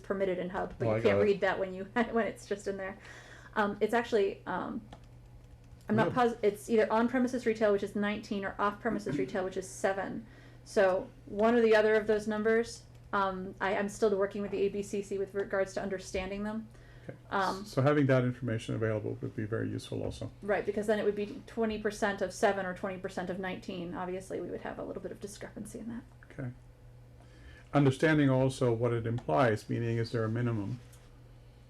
permitted in Hub, but Oh, I you got can't it. read that when you when it's just in there. Um, it's actually um, I'm not Yeah. positive. It's either on premises retail, which is 19, or off premises retail, which is seven. So one or the other of those numbers. Um, I, I'm still working with the ABCC with regards to understanding them. Okay. Um, So having that information available would be very useful also. Right, because then it would be twenty percent of seven or twenty percent of nineteen. Obviously, we would have a little bit of discrepancy in that. Okay. Understanding also what it implies, meaning is there a minimum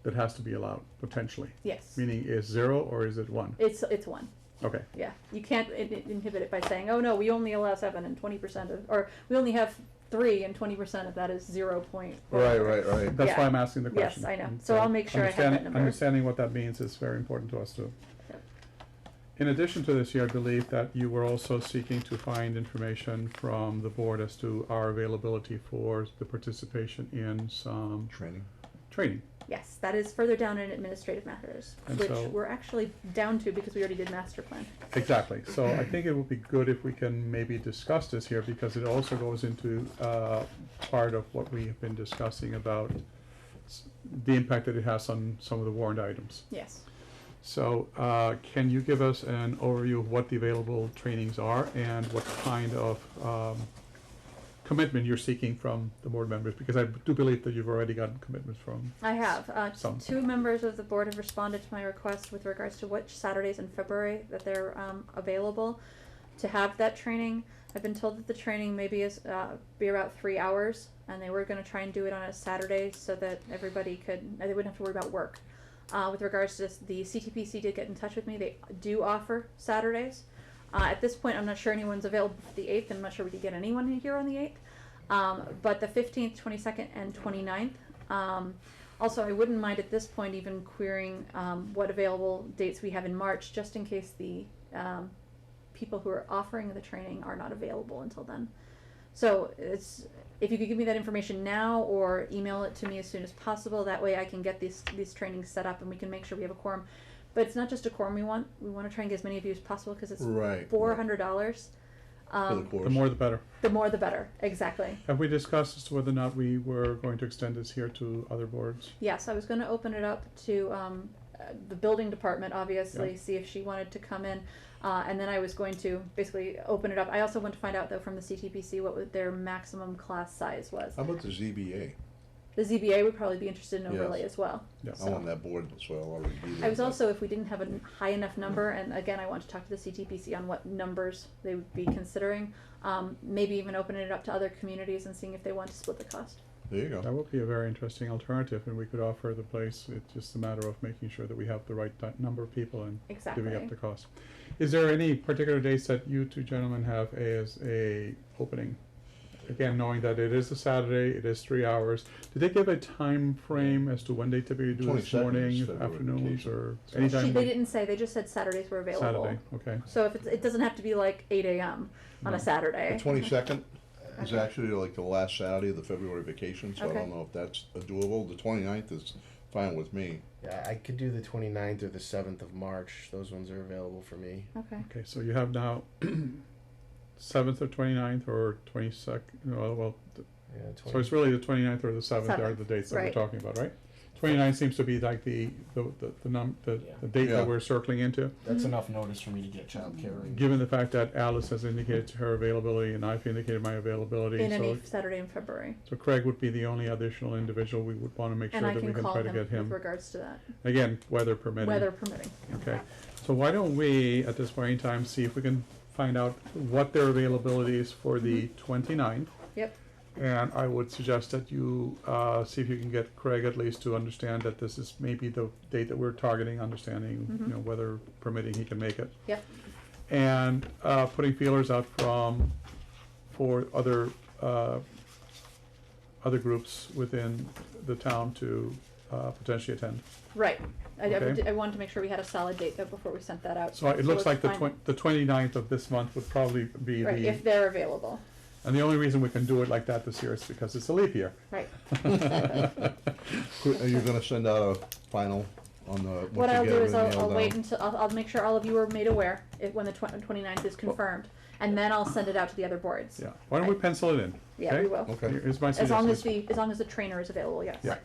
that has to be allowed potentially? Yes, Meaning is zero or is it one? it's it's one. Okay, Yeah, you can't in- in- inhibit it by saying, oh no, we only allow seven and twenty percent of, or we only have three and twenty percent of that is zero point. Right, right, right. that's why Yeah. I'm asking the Yes, question. I know. And So I'll make sure I have that understanding- number. Understanding what that means is very important to us too. Yep. In addition to this, I believe that you were also seeking to find information from the board as to our availability for the participation in some Training. training. Yes, that is further down in administrative matters, And which so- we're actually down to because we already did master plan. Exactly, so I think it would be good if we can maybe discuss this here, because it also goes into, uh, part of what we have been discussing about s- the impact that it has on some of the warrant items. Yes. So, uh, can you give us an overview of what the available trainings are and what kind of, um, commitment you're seeking from the board members? Because I do believe that you've already gotten commitments from, I have. Uh, t- Some. two members of the board have responded to my request with regards to which Saturdays in February that they're um, available to have that training. I've been told that the training maybe is uh, be about three hours, and they were going to try and do it on a Saturday so that everybody could they wouldn't have to worry about work. Uh, with regards to this, the CTPC did get in touch with me. They do offer Saturdays. Uh, at this point, I'm not sure anyone's available for the 8th. I'm not sure we could get anyone in here on the 8th. Um, but the 15th, 22nd, and 29th. Um, also, I wouldn't mind at this point even querying um, what available dates we have in March, just in case the um, people who are offering the training are not available until then. So it's if you could give me that information now or email it to me as soon as possible. That way, I can get these these trainings set up and we can make sure we have a quorum. But it's not just a quorum we want. We want to try and get as many of you as possible because it's Right. four hundred dollars. For the Um, course. the more the better. the more the better. Exactly. Have we discussed as to whether or not we were going to extend this here to other boards? Yes, I was going to open it up to um, uh, the building department, obviously, Yeah. see if she wanted to come in. Uh, and then I was going to basically open it up. I also want to find out, though, from the CTPC what would their maximum class size was. Oh. How about the ZBA? The ZBA would probably be interested in overlay Yes. as well. Yeah. I'm on that board, so I'll already be there. I was but- also, if we didn't have a n- high enough number, and again, I want to talk to the CTPC on what numbers they would be considering, um, maybe even opening it up to other communities and seeing if they want to split the cost. There you go. That would be a very interesting alternative, and we could offer the place, it's just a matter of making sure that we have the right di- number of people and giving Exactly. up the cost. Is there any particular dates that you two gentlemen have as a opening? Again, knowing that it is a Saturday, it is three hours, did they give a time frame as to when they typically do this 22nd is morning, February afternoons, vacation. or She- anytime? She, they we- didn't say, they just said Saturdays were available. Saturday, okay. So if it's, it doesn't have to be like eight AM on No. a Saturday. The twenty-second is Okay. actually like the last Saturday of the February vacation, so I Okay. don't know if that's doable. The 29th is fine with me. Yeah, I could do the 29th or the 7th of March. Those ones are available for me. Okay. Okay, so you have now seventh or twenty-ninth or twenty-second, well, th- Yeah, So 20, it's really the 29th or the seventh are the Seventh, dates that we're right. talking about, right? 29 seems to be like the, the, the, the num, the, Yeah. the date Yeah. that we're circling into. That's enough notice for me to get childcare. and- Given the fact that Alice has indicated her availability and I've indicated my availability, In so, any Saturday in February. so Craig would be the only additional individual we would wanna make sure And I that we can can call try to him get with him. regards to that, Again, weather permitting. weather permitting. Okay, so why don't we, at this point in time, see if we can find out what their availability is for the 29th? Yep, And I would suggest that you, uh, see if you can get Craig at least to understand that this is maybe the date that we're targeting, understanding, you know, whether permitting he can make it. yep, And, uh, putting feelers out from, for other, uh, other groups within the town to, uh, potentially attend. right. I, I Okay. did- I wanted to make sure we had a solid date though before we sent that out. So it let's looks like the find- twen- the twenty-ninth of this month would probably be Right, if the, they're available, and the only reason we can do it like that this year is because it's a leap year. right. Qu- Are you gonna send out a final on the? once What you I'll get do is everything I'll, nailed I'll wait down? until, I'll, I'll make sure all of you are made aware if, when the twen- twenty-ninth is confirmed. And then I'll send it out to the other boards. Yeah, why don't we Right. pencil it in? Yeah, we will. Okay. Here's my As long as suggestion. the, as long as the trainer is available, yes. Yeah.